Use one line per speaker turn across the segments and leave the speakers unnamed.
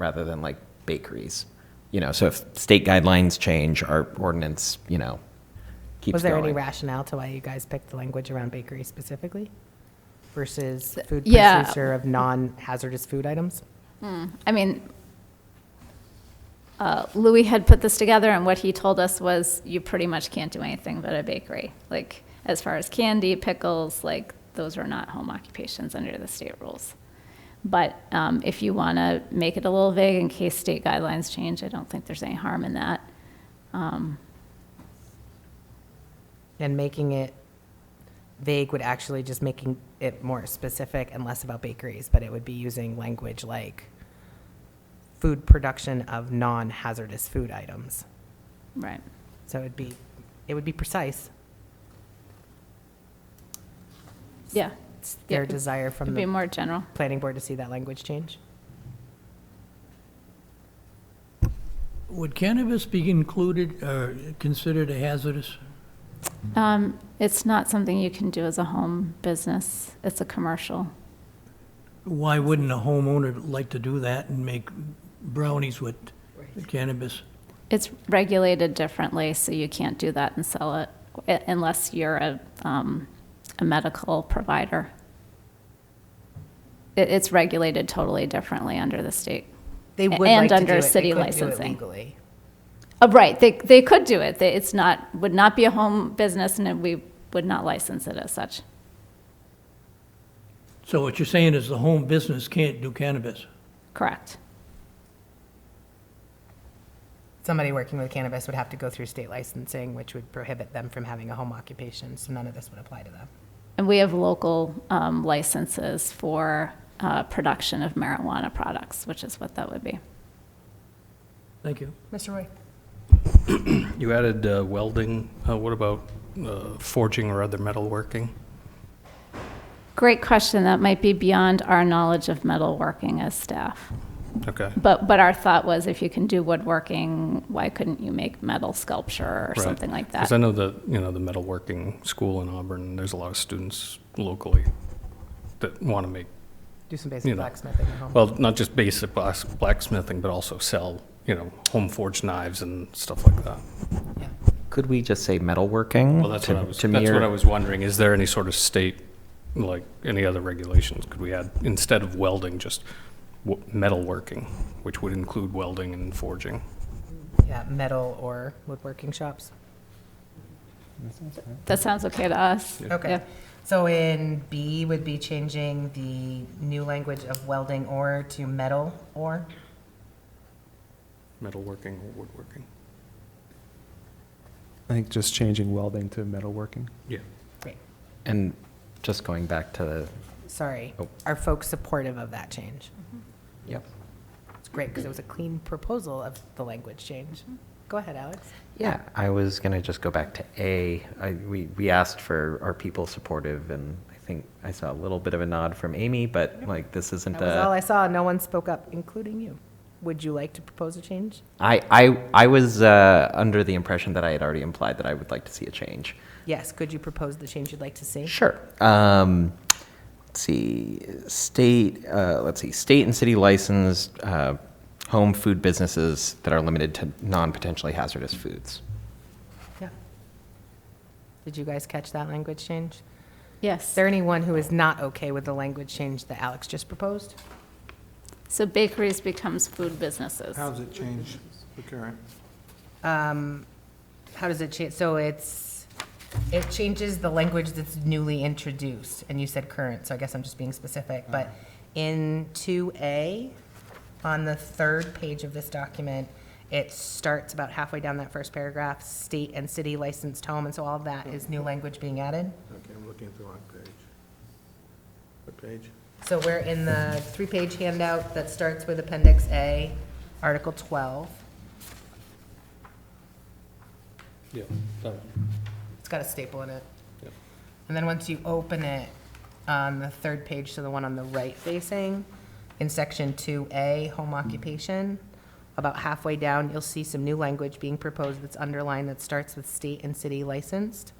rather than like bakeries. You know, so if state guidelines change, our ordinance, you know, keeps
Was there any
going.
rationale to why you guys picked the language around bakery specifically versus food
yeah.
producer of non-hazardous food items?
I mean, uh, Louis had put this together, and what he told us was, you pretty much can't do anything but a bakery. Like, as far as candy, pickles, like, those are not home occupations under the state rules. But um, if you want to make it a little vague in case state guidelines change, I don't think there's any harm in that.
And making it vague would actually just making it more specific and less about bakeries, but it would be using language like food production of non-hazardous food items.
Right.
So it'd be, it would be precise,
Yeah.
It's their
Yeah.
desire from
It'd be
the
more general.
planning board to see that language change.
Would cannabis be included or considered a hazardous?
Um, It's not something you can do as a home business. It's a commercial.
Why wouldn't a homeowner like to do that and make brownies with cannabis?
It's regulated differently, so you can't do that and sell it u- unless you're a, um, a medical provider. It, it's regulated totally differently under the state.
They would like
And
to do
under
it, they
city
couldn't do it
licensing.
legally.
Oh, right, they, they could do it. They- It's not, would not be a home business and it- we would not license it as such.
So what you're saying is the home business can't do cannabis?
Correct.
somebody working with cannabis would have to go through state licensing, which would prohibit them from having a home occupation, so none of this would apply to them.
And we have local, um, licenses for, uh, production of marijuana products, which is what that would be.
Thank you.
Mr. Roy?
You added uh, welding. Uh, What about uh, forging or other metalworking?
Great question. That might be beyond our knowledge of metalworking as staff.
Okay,
But, but our thought was if you can do woodworking, why couldn't you make metal sculpture or
Right.
something like that?
because I know the, you know, the metalworking school in Auburn, there's a lot of students locally that want to make,
Do some
You
basic
know,
blacksmithing at home.
well, not just basic blas- blacksmithing, but also sell, you know, home forged knives and stuff like that.
Yeah.
Could we just say metalworking?
Well, that's what I
To-
was,
to
that's
mirror-
what I was wondering. Is there any sort of state, like, any other regulations? Could we add, instead of welding, just w- metalworking, which would include welding and forging?
Yeah, metal or woodworking shops.
That sounds okay to us.
Okay.
Yeah.
So in B would be changing the new language of welding or to metal or?
Metalworking or woodworking?
I think just changing welding to metalworking.
Yeah.
Great.
And just going back to the,
Sorry.
Oh.
Are folks supportive of that change?
yep.
It's great, because it was a clean proposal of the language change. Go ahead, Alex.
Yeah, I was going to just go back to A. I, we, we asked for, are people supportive? And I think I saw a little bit of a nod from Amy, but like, this isn't
That
a.
was
Uh,
all I saw. No one spoke up, including you. Would you like to propose a change?
I, I, I was uh, under the impression that I had already implied that I would like to see a change.
Yes, could you propose the change you'd like to see?
Sure. Um, let's see, state, uh, let's see, state and city licensed uh, home food businesses that are limited to non potentially hazardous foods.
Yeah. Did you guys catch that language change? Is
Yes.
there anyone who is not okay with the language change that Alex just proposed?
So bakeries becomes food businesses.
How's it change the current?
Um, How does it change, so it's, it changes the language that's newly introduced, and you said current, so I guess I'm just being specific, but in 2A, on the third page of this document, it starts about halfway down that first paragraph, state and city licensed home, and so all of that is new language being added?
Okay, I'm looking at the wrong page. What page?
So we're in the three-page handout that starts with Appendix A, Article 12.
Yeah.
It's got a staple in it.
Yep.
And then once you open it on the third page, so the one on the right facing, in Section 2A, Home Occupation, about halfway down, you'll see some new language being proposed that's underlined that starts with state and city licensed.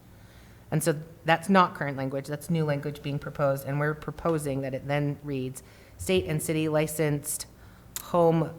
And so that's not current language, that's new language being proposed, and we're proposing that it then reads, state and city licensed home